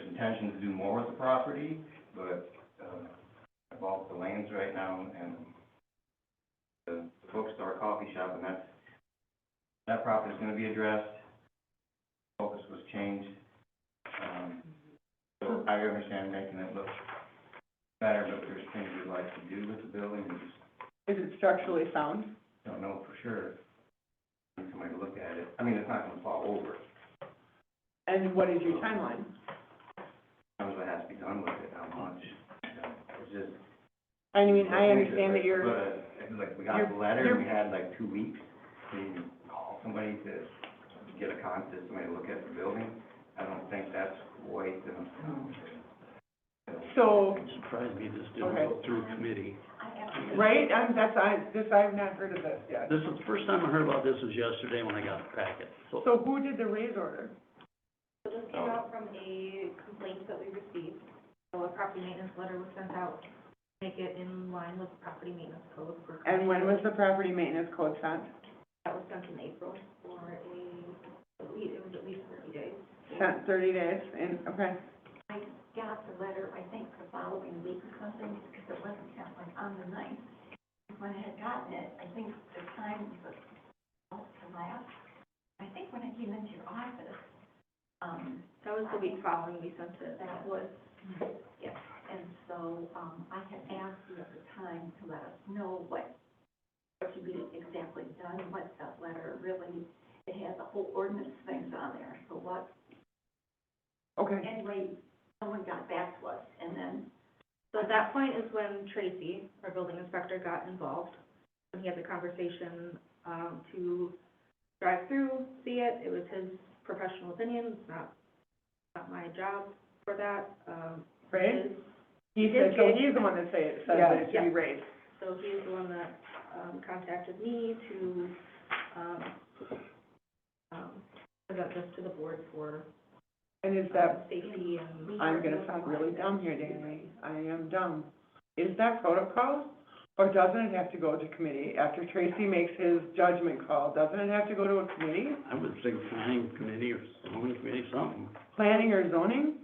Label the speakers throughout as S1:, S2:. S1: intention to do more with the property, but, uh, I bought the lands right now and the bookstore, coffee shop, and that's, that property's gonna be addressed. Focus was changed. Um, so I understand making it look better, but there's things we'd like to do with the building, we just
S2: Is it structurally sound?
S1: don't know for sure. Need somebody to look at it. I mean, it's not gonna fall over.
S2: And what is your timeline?
S1: How much has to be done with it, how much, uh, it's just.
S2: I mean, I understand that you're,
S1: But, uh, it's like, we got the letter, and we had like two weeks, to call somebody to get a contact, somebody to look at the building. I don't think that's quite enough.
S2: so,
S3: Surprised me this didn't
S2: Okay.
S3: go through committee.
S2: right, I'm, that's, I, this, I've not heard of this yet.
S3: This is, the first time I heard about this was yesterday when I got the packet, so.
S2: So who did the raise order?
S4: So this came out from a complaint that we received, so a property maintenance letter was sent out, to make it in line with property maintenance code for.
S2: And when was the property maintenance code sent?
S4: That was sent in April for a, at least, it was at least thirty days.
S2: Sent thirty days, and, okay,
S4: I got the letter, I think, the following week or something, because it wasn't sent like on the ninth. When I had gotten it, I think the time was about to last. I think when I came into your office, um. That was the week following we sent it. That was, yes, and so, um, I had asked you at the time to let us know what, what you had exactly done, what that letter really, it had the whole ordinance things on there, so what
S2: okay.
S4: anyway, someone got back to us, and then. So at that point is when Tracy, our building inspector, got involved, and he had the conversation, um, to drive through, see it, it was his professional opinion, it's not, not my job for that, um.
S2: Right?
S4: his.
S2: He said, so he's the one that say, said that it should be raised.
S4: So he is the one that, um, contacted me to, um, um, present this to the board for,
S2: And is
S4: um,
S2: that,
S4: safety and.
S2: I'm gonna sound really dumb here, Danny, I am dumb. Is that protocol? Or doesn't it have to go to committee? After Tracy makes his judgment call, doesn't it have to go to a committee?
S3: I would think planning committee or zoning committee, something.
S2: Planning or zoning?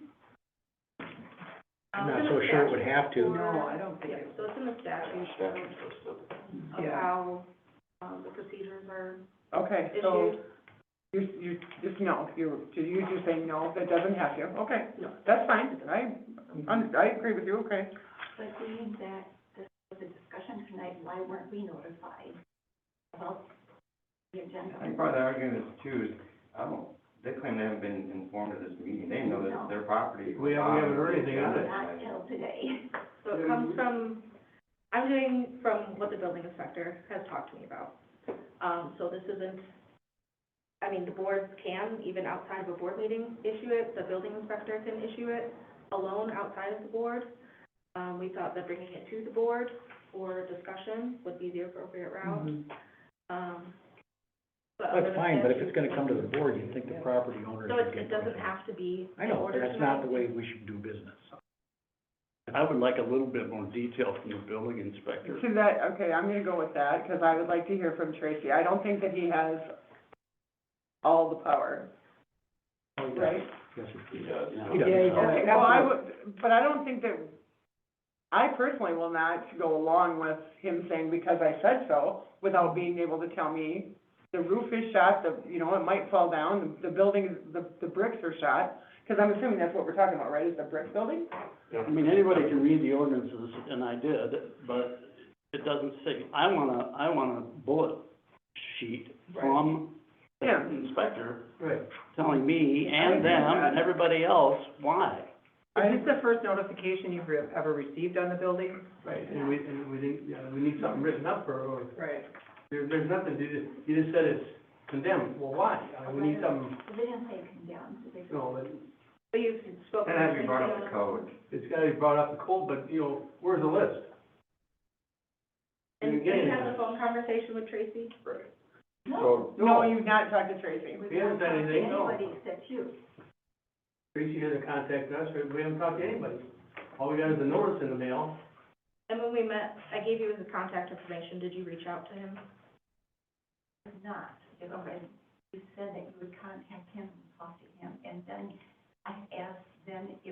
S4: I'm not so sure it would have to.
S2: don't
S4: Yeah, so it's in the statute of
S2: Yeah.
S4: how, um, the procedures are
S2: Okay, so
S4: issued.
S2: you're, you're just no, you're, you're just saying no, that doesn't have to, okay.
S4: No.
S2: That's fine, I, I'm- I agree with you, okay.
S4: But being that this was a discussion tonight, why weren't we notified about the agenda?
S1: I think part of the argument is too, is, I don't, they claim they haven't been informed of this meeting, they know that their property.
S5: We haven't- we haven't heard anything on it.
S4: Not till today.
S6: So it comes from, I'm doing from what the building inspector has talked to me about. Um, so this isn't, I mean, the board can, even outside of a board meeting, issue it, the building inspector can issue it alone outside of the board. Um, we thought that bringing it to the board for discussion would be the appropriate route, um.
S5: That's fine, but if it's gonna come to the board, you'd think the property owner
S6: So
S5: should
S6: it,
S5: get.
S6: it doesn't have to be
S5: I
S6: in
S5: know, but
S6: order
S5: that's not the
S6: tonight.
S5: way we should do business.
S3: I would like a little bit more detail from the building inspector.
S2: So that, okay, I'm gonna go with that, because I would like to hear from Tracy. I don't think that he has all the power, right?
S5: Yes, it is.
S3: Yeah.
S5: He does.
S3: Yeah, he does.
S2: Okay, well, I would, but I don't think that, I personally will not go along with him saying, because I said so, without being able to tell me, the roof is shot, the, you know, it might fall down, the, the building, the, the bricks are shot, because I'm assuming that's what we're talking about, right, is the brick building?
S3: I mean, anybody can read the ordinances, and I did, but it doesn't say, I want a, I want a bullet sheet from the
S2: Yeah.
S3: inspector
S5: Right.
S3: telling me
S2: I
S3: and
S2: agree with
S3: them
S2: that.
S3: and everybody else why.
S2: I-
S7: Is this the first notification you've re- ever received on the building?
S5: Right, and we, and we need, yeah, we need something written up for, or,
S2: Right.
S5: there, there's nothing, you just, you just said it's condemned, well, why? Uh, We need something,
S4: They didn't say condemned, they
S5: you know, that,
S6: So you've spoken.
S1: And
S6: to
S1: have you brought up
S6: Cynthia.
S1: the code?
S5: it's gotta be brought up to code, but, you know, where's the list?
S6: And
S5: You get
S6: you
S5: it.
S6: had a phone conversation with Tracy?
S4: No.
S2: No, you've not talked to Tracy.
S4: We
S5: He hasn't said anything, no.
S4: Anybody except you.
S5: Tracy hasn't contacted us, or we haven't talked to anybody. All we got is a notice in the mail,
S6: And when we met, I gave you his contact information, did you reach out to him?
S4: It's not, it was, you said that you would contact him, and talk to him, and then I asked them if